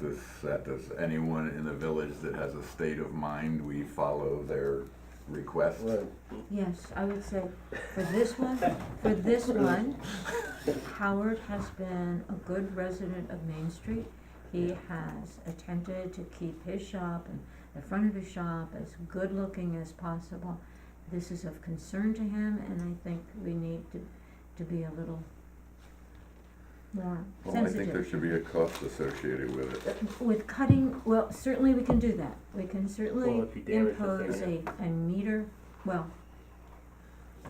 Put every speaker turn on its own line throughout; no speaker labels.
this, that does anyone in the village that has a state of mind, we follow their request.
Right.
Yes, I would say for this one, for this one, Howard has been a good resident of Main Street. He has attempted to keep his shop and the front of his shop as good looking as possible. This is of concern to him and I think we need to, to be a little more
Well, I think there
sensitive.
should be a cost associated with it.
With cutting, well, certainly we can do that. We can
Well,
certainly
if you damage the
impose
thing,
a, a meter, well,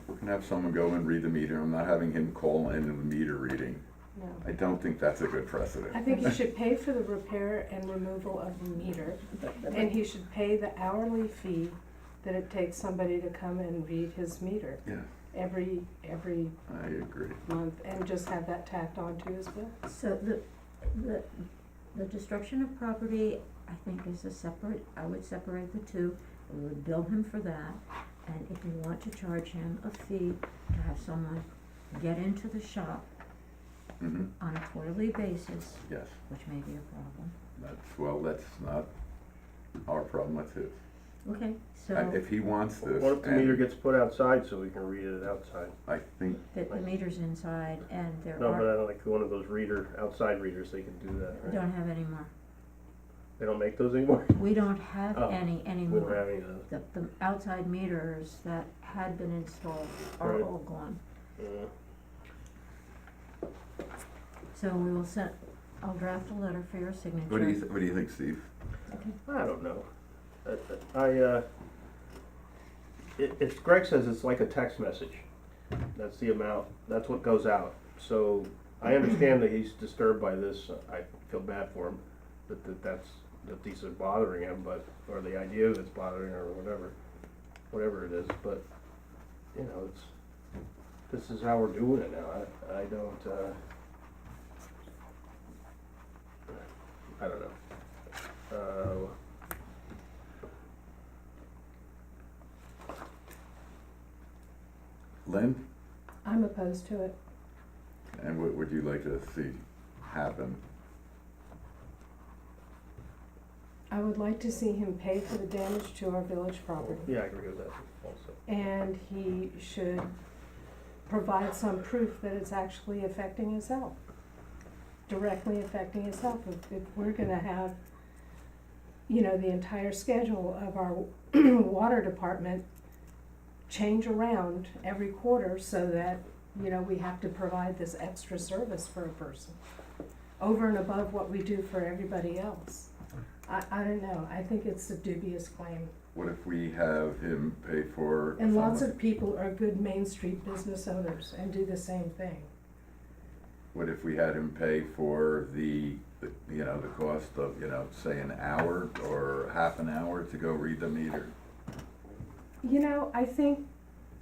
We're gonna have someone go and read the meter, I'm not having him call in the meter reading.
No.
I don't think that's a good precedent.
I think he should pay for the repair and removal of the meter, and he should pay the hourly fee that it takes somebody to come and read his meter
Yeah,
every, every
I agree.
month, and just have that tacked on to his bill.
So the, the, the destruction of property, I think is a separate, I would separate the two, we would bill him for that. And if you want to charge him a fee to have someone get into the shop
hmm
on a quarterly basis,
yes,
which may be a problem,
that's, well, that's not our problem, that's his.
okay,
I-
so
If he wants this,
What if the meter
and
gets put outside so we can read it outside?
I think,
the, the meter's inside and there
No, but
are,
I don't like one of those reader, outside readers, they can do that,
we
right?
don't have any more,
They don't make those anymore?
we don't have
Oh,
any
We don't
anymore.
have any of those.
The, the outside meters that had been installed are
Right.
all gone.
Yeah.
So we will send, I'll draft a letter for your signature.
what do you, th- what do you think, Steve?
Okay.
I don't know. I- I, uh, it, it's, Greg says it's like a text message. That's the amount, that's what goes out. So I understand that he's disturbed by this. I feel bad for him that, that that's, that these are bothering him, but, or the idea that's bothering or whatever, whatever it is, but, you know, it's, this is how we're doing it now. I, I don't, uh, I don't know. Uh,
Lynn,
I'm opposed to it.
and what would you like to see happen?
I would like to see him pay for the damage to our village property.
Yeah, I agree with that also.
And he should provide some proof that it's actually affecting his health, directly affecting his health. If, if we're gonna have, you know, the entire schedule of our water department change around every quarter so that, you know, we have to provide this extra service for a person over and above what we do for everybody else. I, I don't know, I think it's a dubious claim.
What if we have him pay for?
And lots
someone-
of people are good Main Street business owners and do the same thing.
What if we had him pay for the, the- you know, the cost of, you know, say an hour or half an hour to go read the meter?
You know, I think,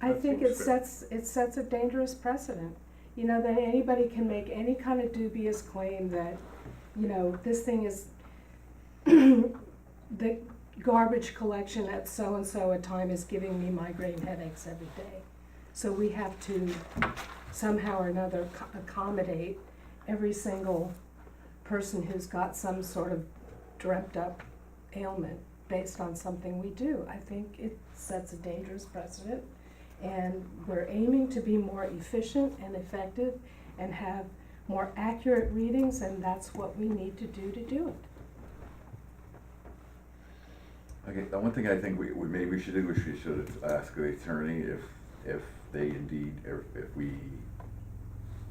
I
That
think
seems
it
fair.
sets, it sets a dangerous precedent. You know, that anybody can make any kind of dubious claim that, you know, this thing is the garbage collection at so-and-so a time is giving me migraine headaches every day. So we have to somehow or another co- accommodate every single person who's got some sort of dreamt up ailment based on something we do. I think it sets a dangerous precedent. And we're aiming to be more efficient and effective and have more accurate readings, and that's what we need to do to do it.
Okay, the one thing I think we, we, maybe we should do is we should ask the attorney if, if they indeed, if, if we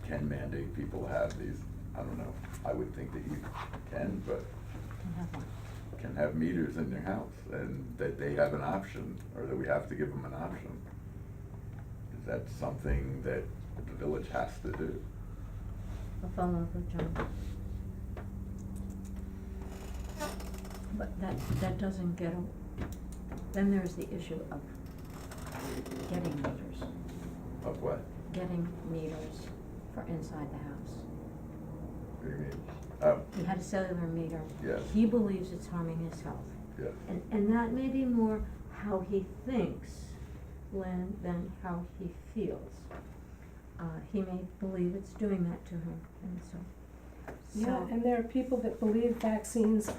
can mandate people to have these. I don't know, I would think that you can, but
Can have one.
can have meters in their house and that they have an option or that we have to give them an option. Is that something that the village has to do?
I'll follow up with John. But that, that doesn't get, a- then there's the issue of getting meters,
Of what?
getting meters for inside the house.
What do you mean? Oh,
He had a cellular meter.
Yes.
He believes it's harming his health.
yes.
And, and that may be more how he thinks, Lynn, than how he feels. Uh, he may believe it's doing that to him, and so
Yeah,
So-
and there are people that believe vaccines